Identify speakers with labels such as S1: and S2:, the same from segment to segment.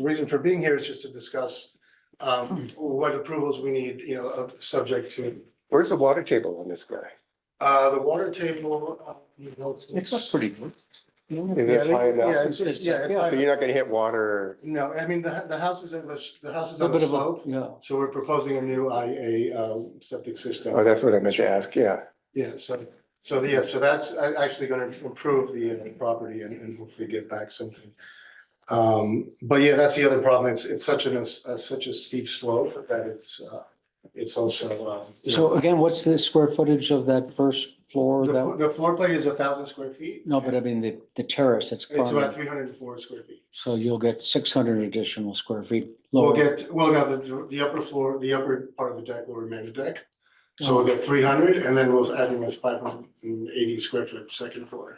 S1: The reason for being here is just to discuss
S2: Hmm.
S1: um what approvals we need, you know, of subject to.
S3: Where's the water table on this guy?
S1: Uh, the water table, uh, you know, it's-
S3: It's pretty good. Is
S1: Yeah,
S3: it high enough?
S1: yeah, it's- it's- yeah, it's
S3: Yeah, so
S1: high
S3: you're not gonna hit water.
S1: No, I mean, the the house is in the, the house is
S2: A
S1: on the
S2: bit of a,
S1: slope,
S2: yeah.
S1: so we're proposing a new I A uh septic system.
S3: Oh, that's what I meant to ask, yeah.
S1: Yeah, so, so, yeah, so that's a- actually gonna improve the uh, property and and hopefully get back something. Um, but yeah, that's the other problem, it's, it's such an, uh, such a steep slope that it's, uh, it's also, uh. you know,
S2: So again, what's the square footage of that first floor
S1: The,
S2: that,
S1: the floor plate is a thousand square feet.
S2: no, but I mean, the, the terrace, it's
S1: It's about
S2: currently,
S1: three hundred and four square feet.
S2: so you'll get six hundred additional square feet.
S1: We'll
S2: lower.
S1: get, well, no, the, the upper floor, the upper part of the deck will remain a deck. So
S2: Uh-huh.
S1: we'll get three hundred and then we'll add in this five hundred and eighty square foot second floor.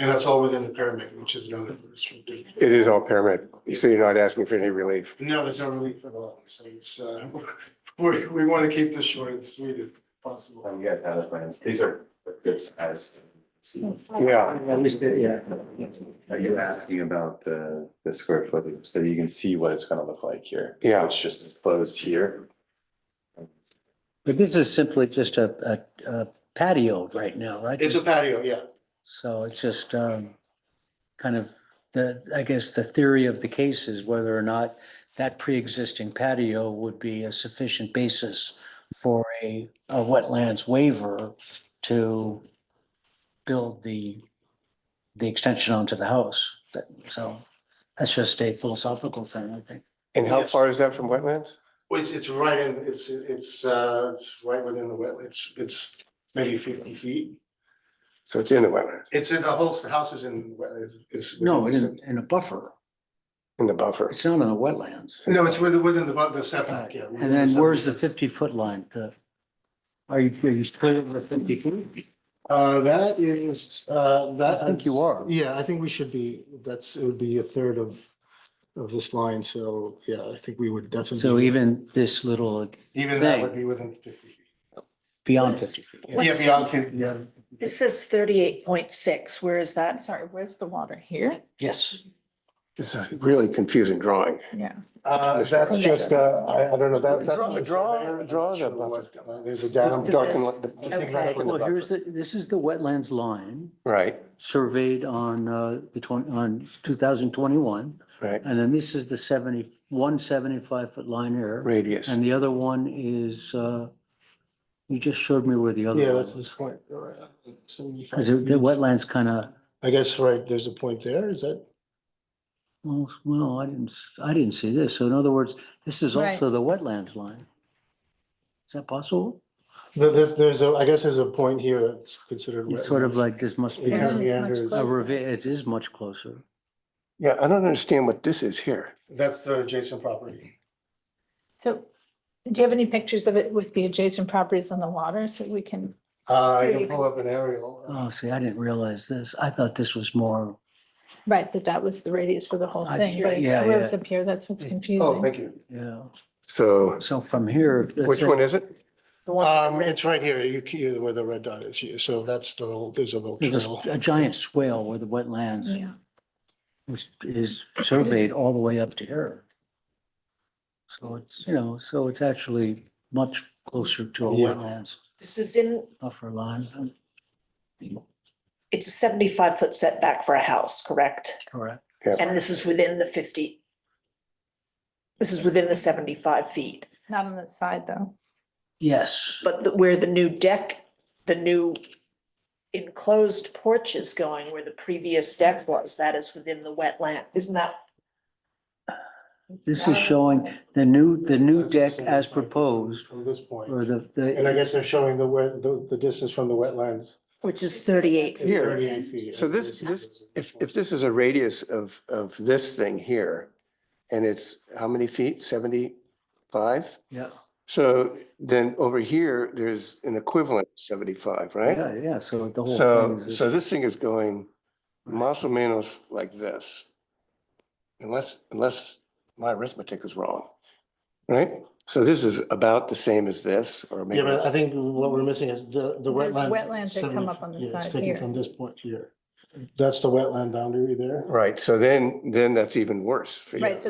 S1: And that's all within the pyramid, which is another restrictive.
S3: It is all pyramid, so you're not asking for any relief.
S1: No, there's no relief at all, so it's, uh, we, we want to keep this short and sweet if possible.
S4: Um, You guys have the plans. These are good size.
S3: Yeah,
S2: At least, yeah.
S4: Are you asking about the, the square footage? So you can see what it's gonna look like here. So
S3: Yeah.
S4: It's just enclosed here.
S2: But this is simply just a, a- a patio right now, right?
S1: It's a patio, yeah.
S2: So it's just, um, kind of the, I guess the theory of the case is whether or not that pre-existing patio would be a sufficient basis for a, a wetlands waiver to build the, the extension onto the house. That, so that's just a philosophical thing, I think.
S3: and how
S1: Yes.
S3: far is that from wetlands?
S1: It's, it's right in, it's, it's, uh, it's right within the wetland, it's, it's maybe fifty feet.
S3: So it's in the wetland,
S1: It's in the whole, the house is in, wetland, is, is.
S2: No,
S1: within the-
S2: in, in a buffer.
S3: in the buffer.
S2: It's not in the wetlands.
S1: No, it's within, within the, the setback, yeah.
S2: And then where's the fifty foot line? The- Are you, are you clear of the fifty feet?
S1: Uh, that is, uh, that.
S2: I think you are.
S1: Yeah, I think we should be, that's, it would be a third of, of this line, so, yeah, I think we would definitely.
S2: So even this little
S1: Even that
S2: thing.
S1: would be within fifty feet.
S2: beyond
S5: Yes.
S2: fifty feet.
S1: Yeah,
S5: What's-
S1: beyond fifty, yeah.
S5: This says thirty-eight point six, where is that? Sorry, where's the water? Here?
S2: Yes.
S3: It's a really confusing drawing.
S5: Yeah.
S1: Uh, that's just, uh, I, I don't know, that's. that's-
S3: Draw- draw- draw the buffer.
S1: Uh, There's a
S3: I'm
S1: down.
S3: talking like the-
S1: I think
S5: Okay.
S1: that would-
S2: Well, here's the, this is the wetlands line
S3: Right,
S2: surveyed on uh, the twenty, on two thousand twenty-one.
S3: right,
S2: And then this is the seventy, one seventy-five foot line here.
S3: radius.
S2: And the other one is, uh, you just showed me where the other
S1: Yeah,
S2: one
S1: that's
S2: was.
S1: this point. All right. So you-
S2: Because the wetlands kind of,
S1: I guess, right, there's a point there, is that?
S2: well, well, I didn't, s- I didn't see this. So in other words, this is
S5: Right.
S2: also the wetlands line. Is that possible?
S1: There- There's, there's a, I guess there's a point here that's considered.
S2: It's sort of
S1: wetlands.
S2: like this must be
S1: It
S5: Yeah,
S1: kind
S2: a
S1: of
S5: it's much
S1: meanders.
S5: closer.
S2: revi- it is much closer.
S3: Yeah, I don't understand what this is here.
S1: That's the adjacent property.
S5: So do you have any pictures of it with the adjacent properties on the water so we can?
S1: Uh, I
S5: Here
S1: can
S5: you
S1: pull up an aerial.
S2: Oh, see, I didn't realize this. I thought this was more,
S5: Right, that that was the radius for the whole
S2: I-
S5: thing, but it's
S2: yeah,
S5: where it's
S2: yeah.
S5: up here, that's what's
S1: Oh,
S5: confusing.
S1: thank you.
S2: yeah.
S3: So
S2: So from here. let's
S3: which
S2: say-
S3: one is it?
S1: Um, it's right here, you, can- you, where the red dot is, You- so that's the, little- there's a little
S2: There's a
S1: trail.
S2: s- a giant swale where the wetlands
S5: Yeah,
S2: is- is surveyed all the way up to here. So it's, you know, so it's actually much closer to a
S1: Yeah.
S2: wetlands
S6: This is in,
S2: buffer line,
S6: it's a seventy-five foot setback for a house, correct?
S2: correct?
S6: And this is within the fifty. This is within the seventy-five feet,
S5: not on the side though.
S2: Yes,
S6: but the- where the new deck, the new enclosed porch is going, where the previous deck was, that is within the wetland, isn't that?
S2: this is showing the new, the new
S1: That's the
S2: deck
S1: same
S2: as
S1: point
S2: proposed,
S1: From this point.
S2: or the,
S1: And I
S2: the,
S1: guess they're showing the, where, the, the distance from the wetlands.
S6: Which is thirty-eight.
S1: is
S3: Here.
S1: 38 feet.
S3: So this, this, if, if this is a radius of, of this thing here, and it's how many feet? Seventy-five?
S2: yeah,
S3: So then over here, there's an equivalent seventy-five, right?
S2: yeah, yeah, so the whole
S3: So,
S2: thing is.
S3: so this thing is going más o menos like this. Unless, unless my arithmetic is wrong, right? So this is about the same as this, or
S1: Yeah,
S3: maybe,
S1: but I think what we're missing is the, the
S5: There's
S1: wetlands.
S5: wetlands that come
S1: 70
S5: up on the
S1: yeah, it's
S5: side
S1: taken
S5: here.
S1: From this point here. That's the wetland boundary there.
S3: Right, so then, then that's even worse for you.
S5: Right, so